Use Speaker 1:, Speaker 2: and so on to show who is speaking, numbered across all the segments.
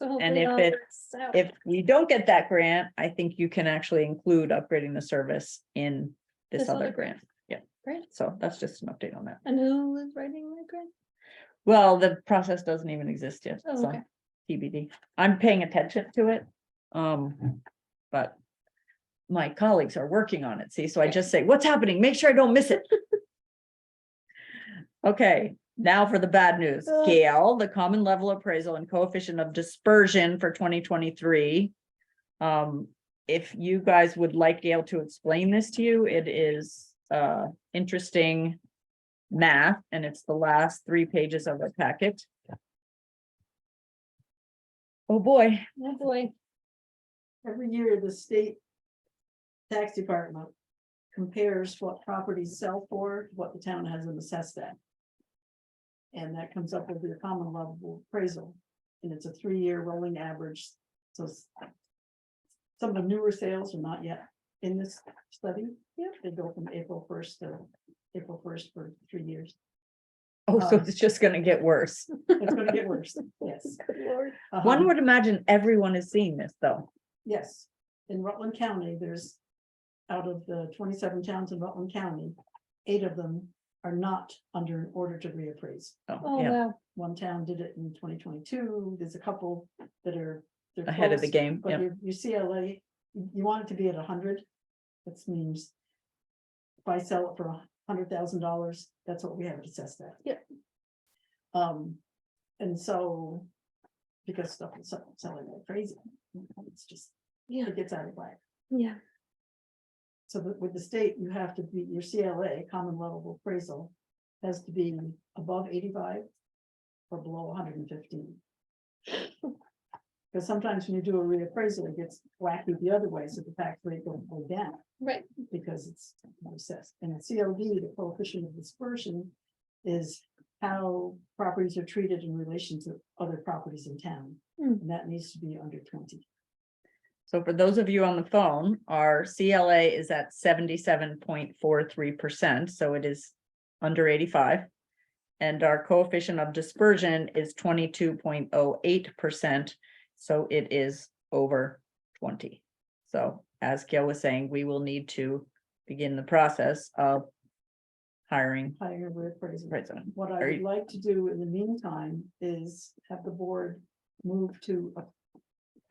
Speaker 1: And if it- If you don't get that grant, I think you can actually include upgrading the service in this
Speaker 2: This
Speaker 1: other
Speaker 2: other
Speaker 1: grant.
Speaker 2: grant.
Speaker 1: Yeah.
Speaker 2: Great.
Speaker 1: So that's just an update on that.
Speaker 2: And who is writing that grant?
Speaker 1: Well, the process doesn't even exist yet,
Speaker 2: Oh,
Speaker 1: so
Speaker 2: okay.
Speaker 1: TBD. I'm paying attention to it. Um, but my colleagues are working on it, see, so I
Speaker 2: Yeah.
Speaker 1: just say, what's happening? Make sure I don't miss it. Okay, now for the bad news.
Speaker 2: Ugh.
Speaker 1: Gail, the common level appraisal and coefficient of dispersion for twenty twenty-three. Um, if you guys would like Gail to explain this to you, it is uh interesting math, and it's the last three pages of the packet. Oh, boy.
Speaker 2: Oh, boy.
Speaker 3: Every year, the state tax department compares what properties sell for, what the town has them assessed at. And that comes up with the common level appraisal, and it's a three-year rolling average, so. s- Some of the newer sales are not yet in this study, yeah, they go from April first to April first for three years,
Speaker 1: Oh, so
Speaker 2: Uh.
Speaker 3: Um,
Speaker 1: it's just gonna get worse.
Speaker 3: it's gonna get worse, yes.
Speaker 2: Good lord.
Speaker 3: Um,
Speaker 1: One would imagine everyone is seeing this, though.
Speaker 3: Yes, in Rutland County, there's, out of the twenty-seven towns in Rutland County, eight of them are not under an order to reappraise.
Speaker 1: Oh,
Speaker 2: Oh,
Speaker 1: yeah,
Speaker 2: wow.
Speaker 3: One town did it in twenty twenty-two, there's a couple that are. they're
Speaker 1: ahead of the
Speaker 3: close,
Speaker 1: game,
Speaker 3: But
Speaker 1: yeah.
Speaker 3: your, your CLA, you you want it to be at hundred, that means if I sell it for hundred thousand dollars, that's what we have it assessed at.
Speaker 2: Yep.
Speaker 3: Um, and so, because stuff is sell- selling like crazy, it's just,
Speaker 2: Yeah.
Speaker 3: it gets out of whack.
Speaker 2: Yeah.
Speaker 3: So that with the state, you have to be, your CLA, common level appraisal, has to be above eighty-five or below hundred and fifteen. Because sometimes when you do a reappraisal, it gets wacky the other way, so the tax rate will go down
Speaker 2: Right.
Speaker 3: because it's assessed. And a CLD, the coefficient of dispersion, is how properties are treated in relation to other properties in town.
Speaker 2: Hmm.
Speaker 3: And that needs to be under twenty.
Speaker 1: So for those of you on the phone, our CLA is at seventy-seven point four three percent, so it is under eighty-five. And our coefficient of dispersion is twenty-two point oh eight percent, so it is over twenty. So as Gail was saying, we will need to begin the process of hiring
Speaker 3: higher reappraisal.
Speaker 1: president.
Speaker 3: What I
Speaker 1: Are
Speaker 3: would
Speaker 1: you-
Speaker 3: like to do in the meantime is have the board move to a-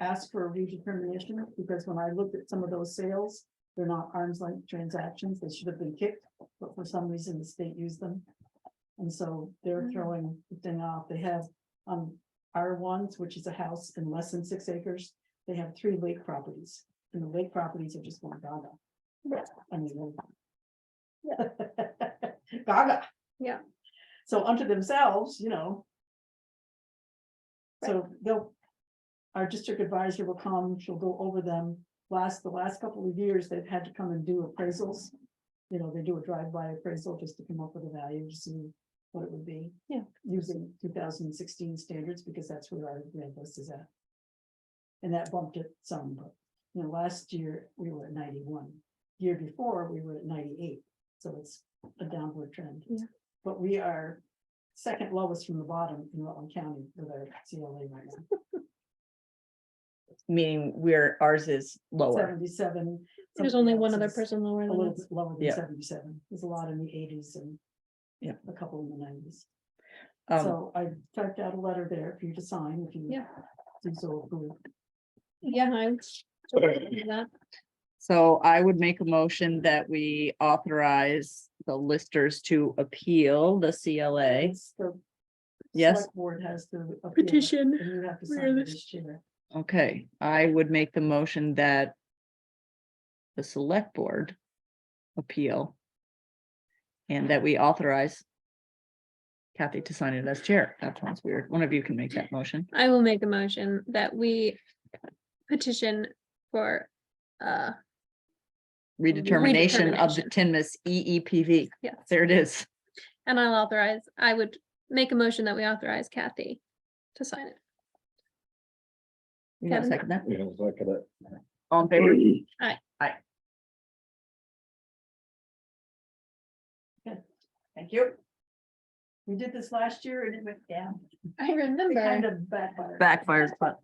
Speaker 3: ask for a redetermination, because when I looked at some of those sales, they're not arms length transactions, they should have been kicked, but for some reason the state used them. And so they're
Speaker 2: Mm.
Speaker 3: throwing the thing off, they have, um, R ones, which is a house in less than six acres, they have three lake properties, and the lake properties are just going gaga.
Speaker 2: Right.
Speaker 3: I mean. Gaga.
Speaker 2: Yeah.
Speaker 3: So unto themselves, you know. So they'll, our district advisor will come, she'll go over them. Last, the last couple of years, they've had to come and do appraisals. You know, they do a drive-by appraisal just to come up with a value to see what it would be.
Speaker 2: Yeah.
Speaker 3: Using two thousand and sixteen standards because that's where our grant list is at. And that bumped it some, but, you know, last year we were at ninety-one. Year before, we were at ninety-eight, so it's a downward trend.
Speaker 2: Yeah.
Speaker 3: But we are second lowest from the bottom in Rutland County with our CLA right now.
Speaker 1: meaning where ours is lower.
Speaker 3: Seventy-seven.
Speaker 2: There's
Speaker 3: something
Speaker 2: only
Speaker 3: else
Speaker 2: one other
Speaker 3: is
Speaker 2: person lower
Speaker 3: A
Speaker 2: than
Speaker 3: little
Speaker 2: us.
Speaker 3: bit lower
Speaker 1: Yeah.
Speaker 3: than seventy-seven. There's a lot in the eighties and
Speaker 1: Yeah.
Speaker 3: a couple in the nineties.
Speaker 1: Um,
Speaker 3: So I typed out a letter there for you to sign if you.
Speaker 2: Yeah.
Speaker 3: do So, approve.
Speaker 2: Yeah, I. would do that.
Speaker 1: so I would make a motion that we authorize the listers to appeal the CLA.
Speaker 3: It's the
Speaker 1: Yes.
Speaker 3: select Board has to. appeal it,
Speaker 2: Petition.
Speaker 3: And you have to
Speaker 2: Where
Speaker 3: sign it
Speaker 2: this-
Speaker 3: as chair.
Speaker 1: Okay, I would make the motion that the select board appeal and that we authorize Kathy to sign it as chair. That sounds weird. One of you can make that motion.
Speaker 2: I will make a motion that we petition for, uh,
Speaker 1: Redetermination of the E
Speaker 2: Redetermination.
Speaker 1: Tinmouth EEPV.
Speaker 2: Yes.
Speaker 1: There it is.
Speaker 2: and I'll authorize, I would make a motion that we authorize Kathy to sign it.
Speaker 1: You want to
Speaker 2: Kevin?
Speaker 1: second that?
Speaker 4: Yeah, look at it.
Speaker 1: All in favor?
Speaker 3: Thank you. We did this last year and it went down.
Speaker 2: I
Speaker 3: It kind
Speaker 2: remember.
Speaker 3: of backfired.
Speaker 1: Backfires, but